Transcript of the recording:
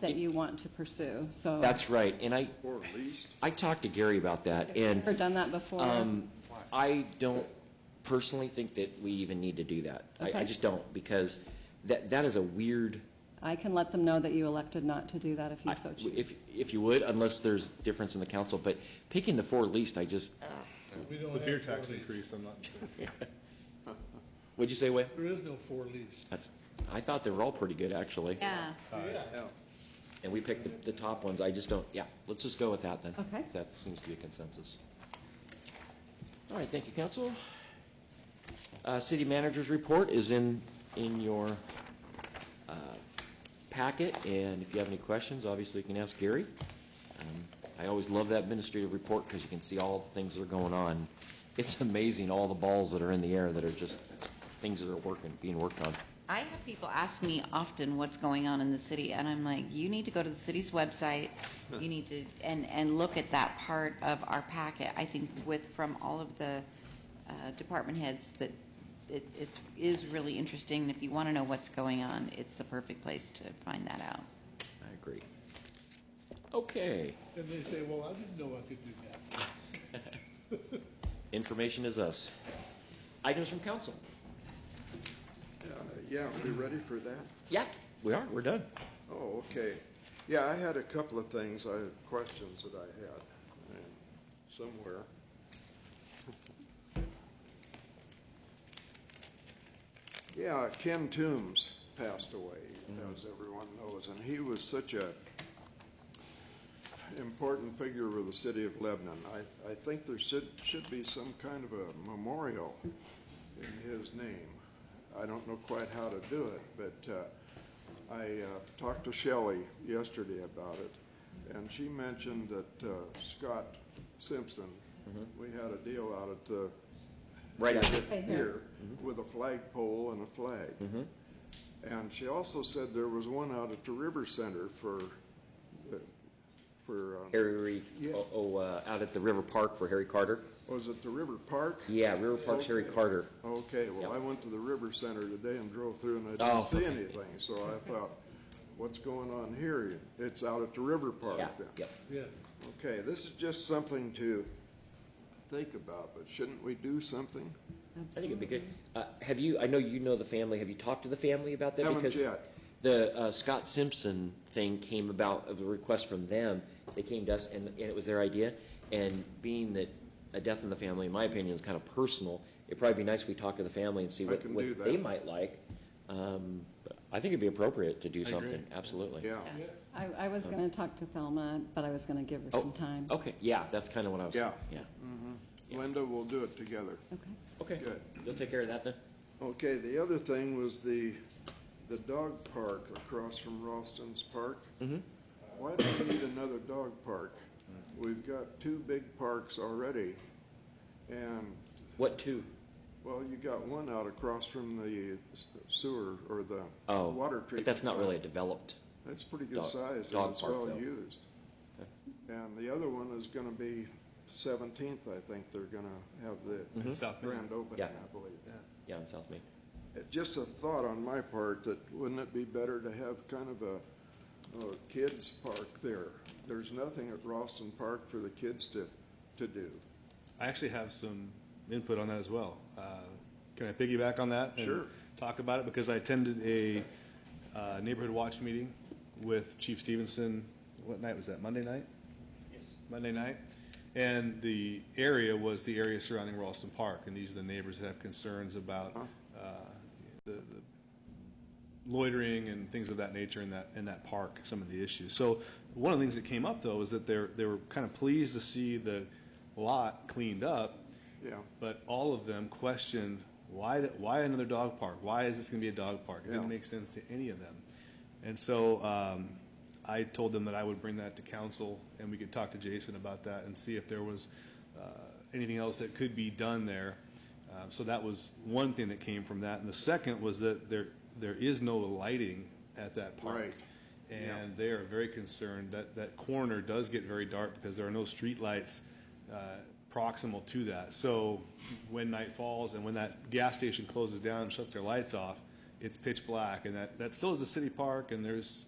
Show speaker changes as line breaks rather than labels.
that you want to pursue, so.
That's right, and I,
Or at least,
I talked to Gary about that,
I've
and...
Never done that before.
Um, I don't personally think that we even need to do that. I, I
Okay.
just don't, because that, that is a weird,
I can let them know that you elected not to do that if you
I-
so choose.
if, if you would, unless there's difference in the council, but picking the four least, I just,
We don't
The beer
have four
tax
lease.
increase, I'm not,
what'd you say, Wei?
There is no four lease.
That's, I thought they were all pretty good, actually.
Yeah.
Yeah.
yeah.
And we picked the, the top ones, I just don't, yeah, let's just go with that then.
Okay.
If That seems to be a consensus. All right, thank you, council. Uh, city manager's report is in, in your, uh, packet, and if you have any questions, obviously you can ask Gary. Um, I always love that administrative report because you can see all the things that are going on. It's amazing, all the balls that are in the air that are just things that are working, being worked on.
I have people ask me often what's going on in the city, and I'm like, you need to go to the city's website, you need to, and, and look at that part of our packet. I think with, from all of the uh, department heads, that it, it's, is really interesting. And If you want to know what's going on, it's the perfect place to find that out.
I agree. Okay.
And they say, well, I didn't know I could do that.
Information is us. Items from council?
Uh, Yeah, are we ready for that?
Yeah, we are, we're done.
Oh, okay. Yeah, I had a couple of things, I had questions that I had uh, somewhere. Yeah, Ken Toombs passed away, as everyone knows, and he was such a important figure of the city of Lebanon. I, I think there should, should be some kind of a memorial in his name. I don't know quite how to do it, but, uh, I uh, talked to Shelley yesterday about it, and she mentioned that uh, Scott Simpson, we had a deal out at the.
Right out
Right
Here,
here.
with a flagpole and a flag.
Mhm.
And she also said there was one out at the River Center for, uh, for, uh,
Harry,
Yeah.
oh, oh, uh, out at the River Park for Harry Carter?
was it the River Park?
Yeah, River Park's Harry
Okay.
Carter.
Okay, well,
Yep.
I went to the River Center today and drove through and I
Oh.
didn't see anything, so I thought, what's going on here? It's out at the River Park
Yeah,
then.
yep.
Yes.
Okay, this is just something to think about, but shouldn't we do something?
I think it'd be good. Uh, Have you, I know you know the family, have you talked to the family about that?
Haven't
Because
yet.
The uh, Scott Simpson thing came about, of a request from them, they came to us, and and it was their idea, and being that a death in the family, in my opinion, is kind of personal, it'd probably be nice if we talked to the family and see
I
what
can do
what
that.
they might like. Um, but I think it'd be appropriate to do something, absolutely.
Yeah,
Yeah.
I, I was going to talk to Thelma, but I was going to give her
Oh,
some time.
Okay, yeah, that's kind of what I was,
Yeah.
yeah.
Linda, we'll do it together.
Okay.
Okay,
Good.
you'll take care of that then?
Okay, the other thing was the, the dog park across from Ralston's Park.
Mm-hmm.
Why do we need another dog park? We've got two big parks already, and,
What two?
well, you got one out across from the sewer or the
Oh.
water treatment.
But that's not really a
plant.
developed,
That's pretty good
Dog-
sized,
dog
and it's
park, though.
well used. And the other one is gonna be Seventeenth, I think they're gonna have the
Mhm.
South Bend.
grand opening,
Yeah.
I believe.
yeah, in South Main.
Uh, Just a thought on my part, that wouldn't it be better to have kind of a, a kids park there? There's nothing at Ralston Park for the kids to, to do.
I actually have some input on that as well. Uh, Can I piggyback on that? and
Sure.
Talk about it, because I attended a uh, neighborhood watch meeting with Chief Stevenson, what night was that, Monday night? Yes. Monday night, and the area was the area surrounding Ralston Park, and these are the neighbors that have concerns about uh, the the loitering and things of that nature in that, in that park, some of the issues. So one of the things that came up, though, is that they're, they were kind of pleased to see the lot cleaned up,
Yeah,
but all of them questioned, why, why another dog park? Why is this going to be a dog park? It
Yeah.
didn't make sense to any of them. And so um, I told them that I would bring that to council, and we could talk to Jason about that and see if there was uh, anything else that could be done there. Uh, So that was one thing that came from that. And the second was that there, there is no lighting at that park.
Right.
And they are very concerned that that corner does get very dark because there are no streetlights uh, proximal to that. So when night falls and when that gas station closes down and shuts their lights off, it's pitch black, and that, that still is a city park, and there's